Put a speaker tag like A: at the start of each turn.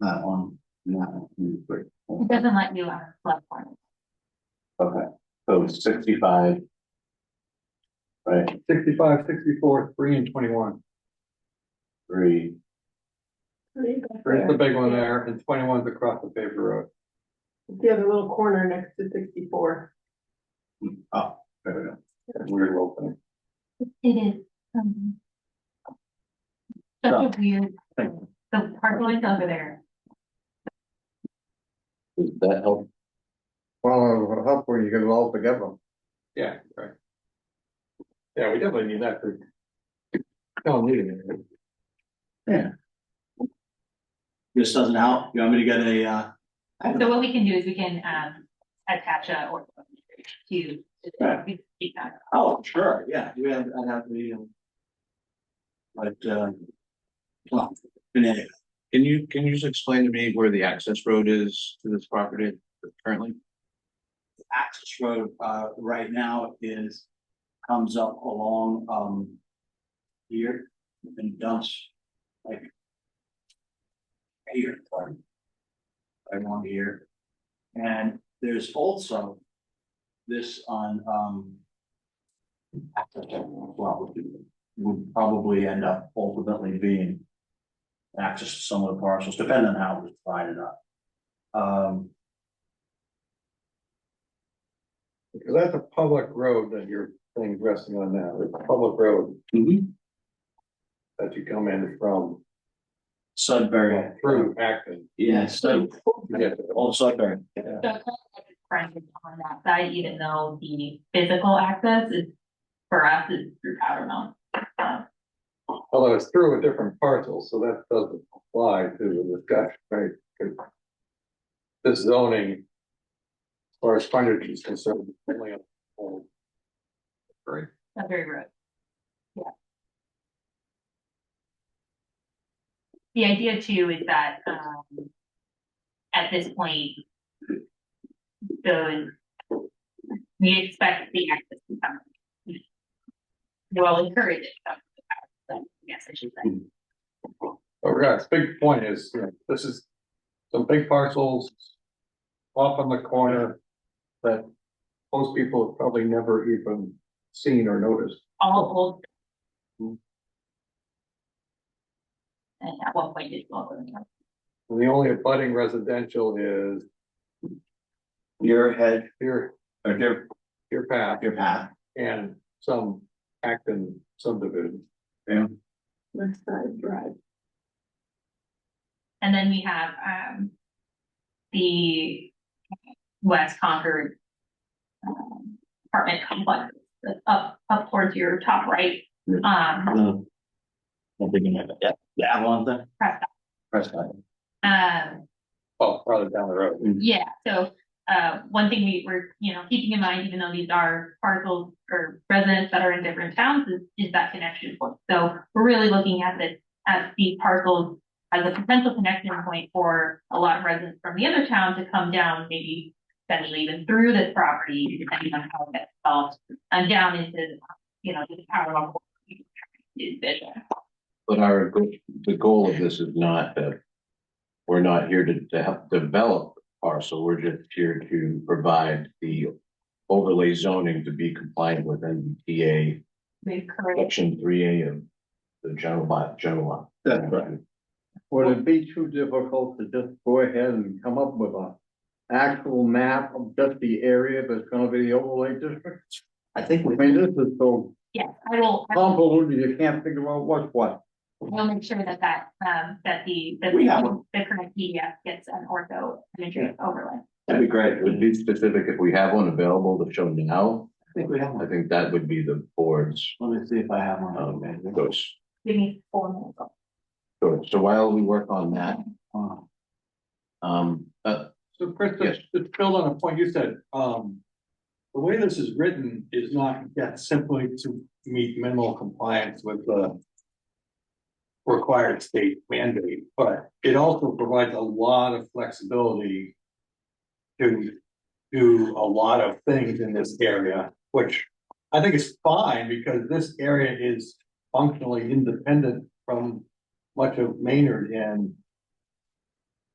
A: Not on, not on Route three.
B: It doesn't let you on the left one.
A: Okay, so it's sixty-five. Right,
C: Sixty-five, sixty-four, three and twenty-one.
A: three,
C: There's the big one there and 21 is across the paper road.
D: The other little corner next to sixty-four.
A: oh, there we go.
C: That Weird little thing.
B: It is. um, Such a weird, the parking lot's over there.
A: Does that help?
E: Well, help when you get it all together.
C: Yeah, right. Yeah, we definitely need that for. Don't need it.
F: This doesn't help, you want me to get a, uh,
B: So what we can do is we can, um, attach a or to. to speak on.
F: oh, sure, yeah, we have, I'd have the, um. But, uh. Well, anyway,
G: Can you, can you just explain to me where the access road is to this property currently?
F: the access road, uh, right now is, comes up along, um. Here, and dumps, like. Here, pardon. Right along here, and there's also. This on, um. access road as Well, which would probably end up ultimately being. Access to some of the parcels, depending on how it was divided up. Um,
C: Because that's a public road that your thing's resting on now. It's a public road that you come in from,
F: Sudbury.
C: well, through Acton.
F: Yeah, so
C: You get to-
F: all Sudbury.
B: So it's not like it's fronted on that side, even though the physical access is, for us, is through Powder Mountain. Um,
C: Although it's through a different parcel, so that doesn't apply to the discussion, right? 'Cause This zoning. As far as frontage is concerned. it's only on- on- Right.
B: Sudbury Road. Yeah. The idea too is that, um, at this point, those, we expect the access to come. Well, encourage it. to come to the house, but Yes, I should say.
C: Oh, yeah, it's big point is, you know, this is some big parcels off on the corner that most people have probably never even seen or noticed.
B: all old. And at one point it's all going up.
C: And the only abutting residential is
F: Your head,
C: your,
F: or your,
C: your path
F: your path,
C: and some Acton subdivision.
D: West Side Drive.
B: And then we have, um, the West Concord. um, Apartment complex, that's up, up towards your top right, um,
F: the. I'm thinking of it, yeah, the Avalon thing,
B: Prescott,
F: Prescott.
B: um,
C: Oh, farther down the road.
B: yeah, so. Uh, one thing we were, you know, keeping in mind, even though these are parcels or residents that are in different towns, is, is that connection point. So we're really looking at this, at these parcels as a potential connection point for a lot of residents from the other town to come down, maybe potentially even through this property, depending on how it gets solved, and down into, you know, the power level. Is vision.
G: But our, go- the goal of this is not that we're not here to, to help develop parcel, we're just here to provide the overlay zoning to be compliant with NBTA
B: We encourage,
G: section three A of the general by, general law.
E: That's right. Would it be too difficult to just go ahead and come up with a actual map of just the area that's gonna be the overlay district?
F: I think
E: I
F: we,
E: mean, this is so
B: yes, I will, I will
E: convoluted, you can't figure out what's what.
B: We'll make sure that that, um, that the, that
F: We have one.
B: the current PDF gets an ortho imagery overlay.
G: That'd be great, it would be specific if we have one available to show now,
F: I think we have
G: I
F: one,
G: think that would be the board's,
F: let me see if I have one.
G: um, goes.
B: Give me four minutes.
G: So so while we work on that,
F: Oh,
G: um, uh,
C: So Chris,
G: Yes.
C: just to build on a point you said, um, the way this is written is not yet simply to meet minimal compliance with the required state mandate, but it also provides a lot of flexibility to do a lot of things in this area, which I think is fine because this area is functionally independent from much of Maynard and